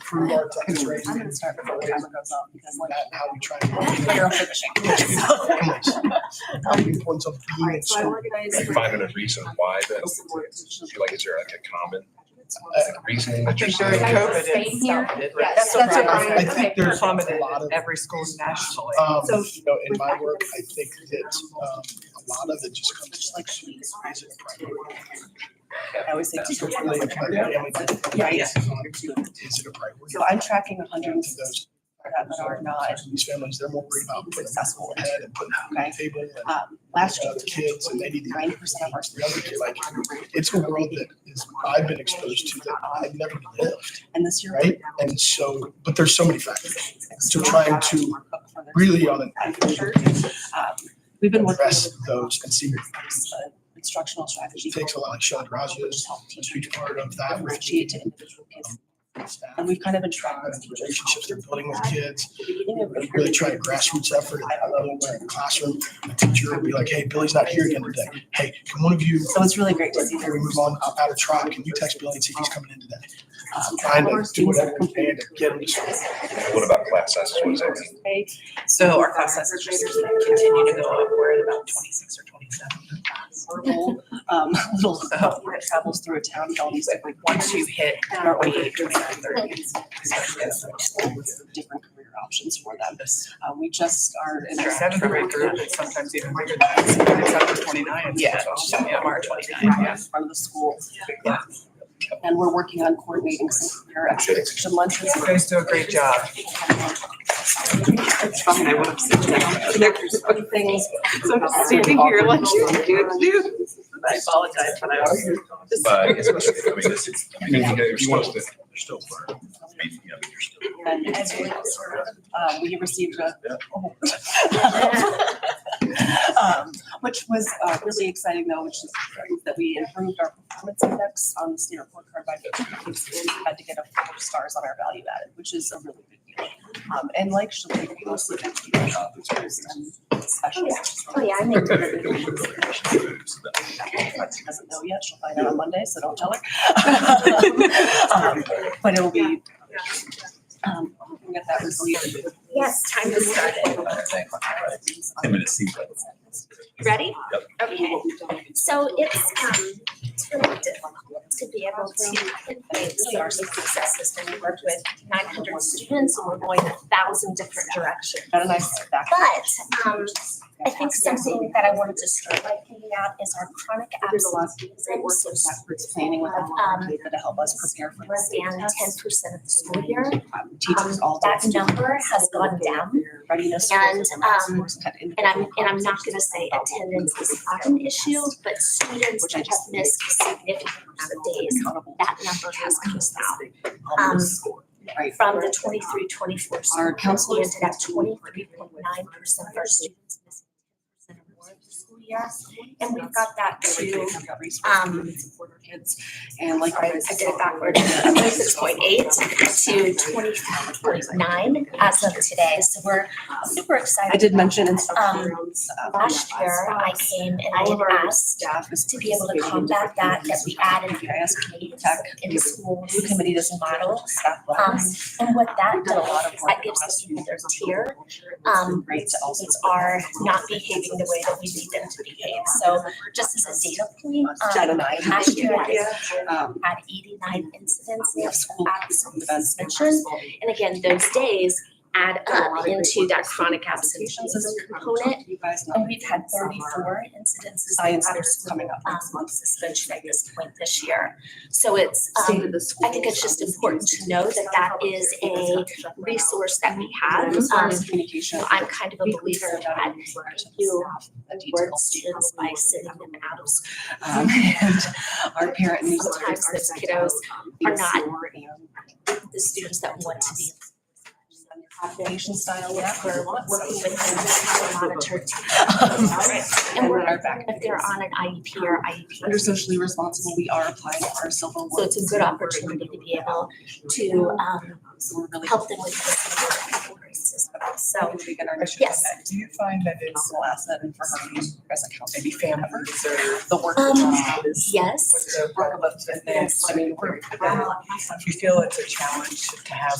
improve our tax rate. I'm gonna start before the Ways timer goes off because like that How we try to. later I'm finishing. Families. How we influence a All being in right, so I school. organized. Five minute reason why that, Uh, you like, is there like a common uh, reasoning that you're think saying? during Guys, COVID, staying it here? stopped it, Yeah, right? that's what That's what Brian I think Okay. there's a lot Plummeted of. at every school nationally. Um, So- you know, in my work, I think that, um, a lot of it just comes to like students raising private. I always say So teacher. really, like, my family did it. Yeah, yeah. Is it a priority? So I'm tracking a hundred and To sixty those, that are not these families, they're more worried about putting successful. their head and putting food on the table and Um, last year. uh, Kids and they need to. Ninety percent of our students. Like, it's a world that is, I've been exposed to that I've never lived, And this year. right? And so, but there's so many factors. So trying to Really on an Um, We've been working. address those and see, with Instructional strategy. it takes a lot of shot Rogers, a huge part of that. with Differentiate to individual kids. staff, And we've kind of been trying. and the Relationships they're building with kids, really try to grassroots effort at that level where in the classroom, the teacher would be like, hey, Billy's not here again today. Hey, can one of you, So it's really great to see. before we move on out- out of tribe, can you text Billy and see if he's coming in today? um, Trying our to do students whatever are we can to get them to school. What about class sizes? What does that mean? So our class sizes just continue to go up, we're at about twenty-six or twenty-seven. verbal, Um, little stuff where it travels through a town, all these different Once you hit twenty-eight, twenty-nine, thirty, thirties. Different career options for them. Uh, we just are. in our our- seventh grade group, it's sometimes even bigger than that, it's up to twenty-nine. Yeah. So, Yeah, March twenty-nine, in yeah. front of the school. And we're working on coordinating some career activities and lunches. You guys do a great job. It's fun. I want to sit down. There's funny things. So I'm just standing here like, dude, dude. I apologize, but I was. But especially, I mean, this is, I mean, if you want us to. They're still. And it's really cool. Uh, we received a. Um, Which was uh, really exciting though, which is that we improved our performance index on the state report card by. 50. We Had to get a four stars on our value added, which is a really big deal. Um, and like, she'll be mostly. empty teachers and specialists. Oh, yeah, I made it. She doesn't know yet, she'll find out on Monday, so don't tell her. Um, But it will be. um, we can Get that resolution. Yes, time to start it. I'm gonna see. Ready? Okay. So it's, um, it's really difficult to be able to influence our successes when we worked with nine hundred students and we're going a thousand different directions. Got a nice back. But, um, I think something that I wanted to start by thinking out is our chronic absences. And so planning with them, Um, to help us prepare for less this. than ten percent of the school year. Um, Teachers all. That number has gone down. Readiness. And, scores math um, scores cut in. And I'm, and I'm not gonna say attendance is not an issue, but students that have missed a significant amount of days, Accountable that number has come down. um, Um, right. From the 23-24 Our school, we counselors. ended at twenty-three point nine percent of our students missing ten percent or more of the school year. And we've got that to, um, And like. I did it backwards, twenty-six point eight to twenty-three point nine as of today, so we're super excited. I did mention in. Um, Last year, I came and I had asked Staff is. to be able to combat that, that we added ISP Tech. in schools. New committee doesn't model staff. Um, wellness. and what that We've done a lot does, of is work that gives on the student their students. tier, It's um, been Great to also. students are not behaving the way that we need them to behave. So just as a data point, Jen um, and I. last year, I Um, had eighty-nine incidents we have of school. absence events. suspension. And again, those days add up into that chronic absence component. You guys know. And we've had thirty-four incidences of Science fair's out. coming up um, next month. month suspension at this point this year. So it's, um, I think it's just important to know that that is a resource that we have. As far Um, as communication. so I'm kind of a believer that you reward students by sending them out of school. Um, and our parent newsletter. Sometimes those kiddos um, are not the students that want to be. Population style. We're working with them to monitor Um, teachers. And we're, our back. if they're on an IEP or IEP. Under socially responsible, we are applying our silver. Um, So it's a good opportunity to be able to, um, So we're really. help them with this. So, We get our initiative. Yes. back. Do you find that it's an asset and for her use as a counselor? Maybe families or The work. Um, that is- yes. um, With the work of events, I mean, we're. uh, if you feel it's a challenge to have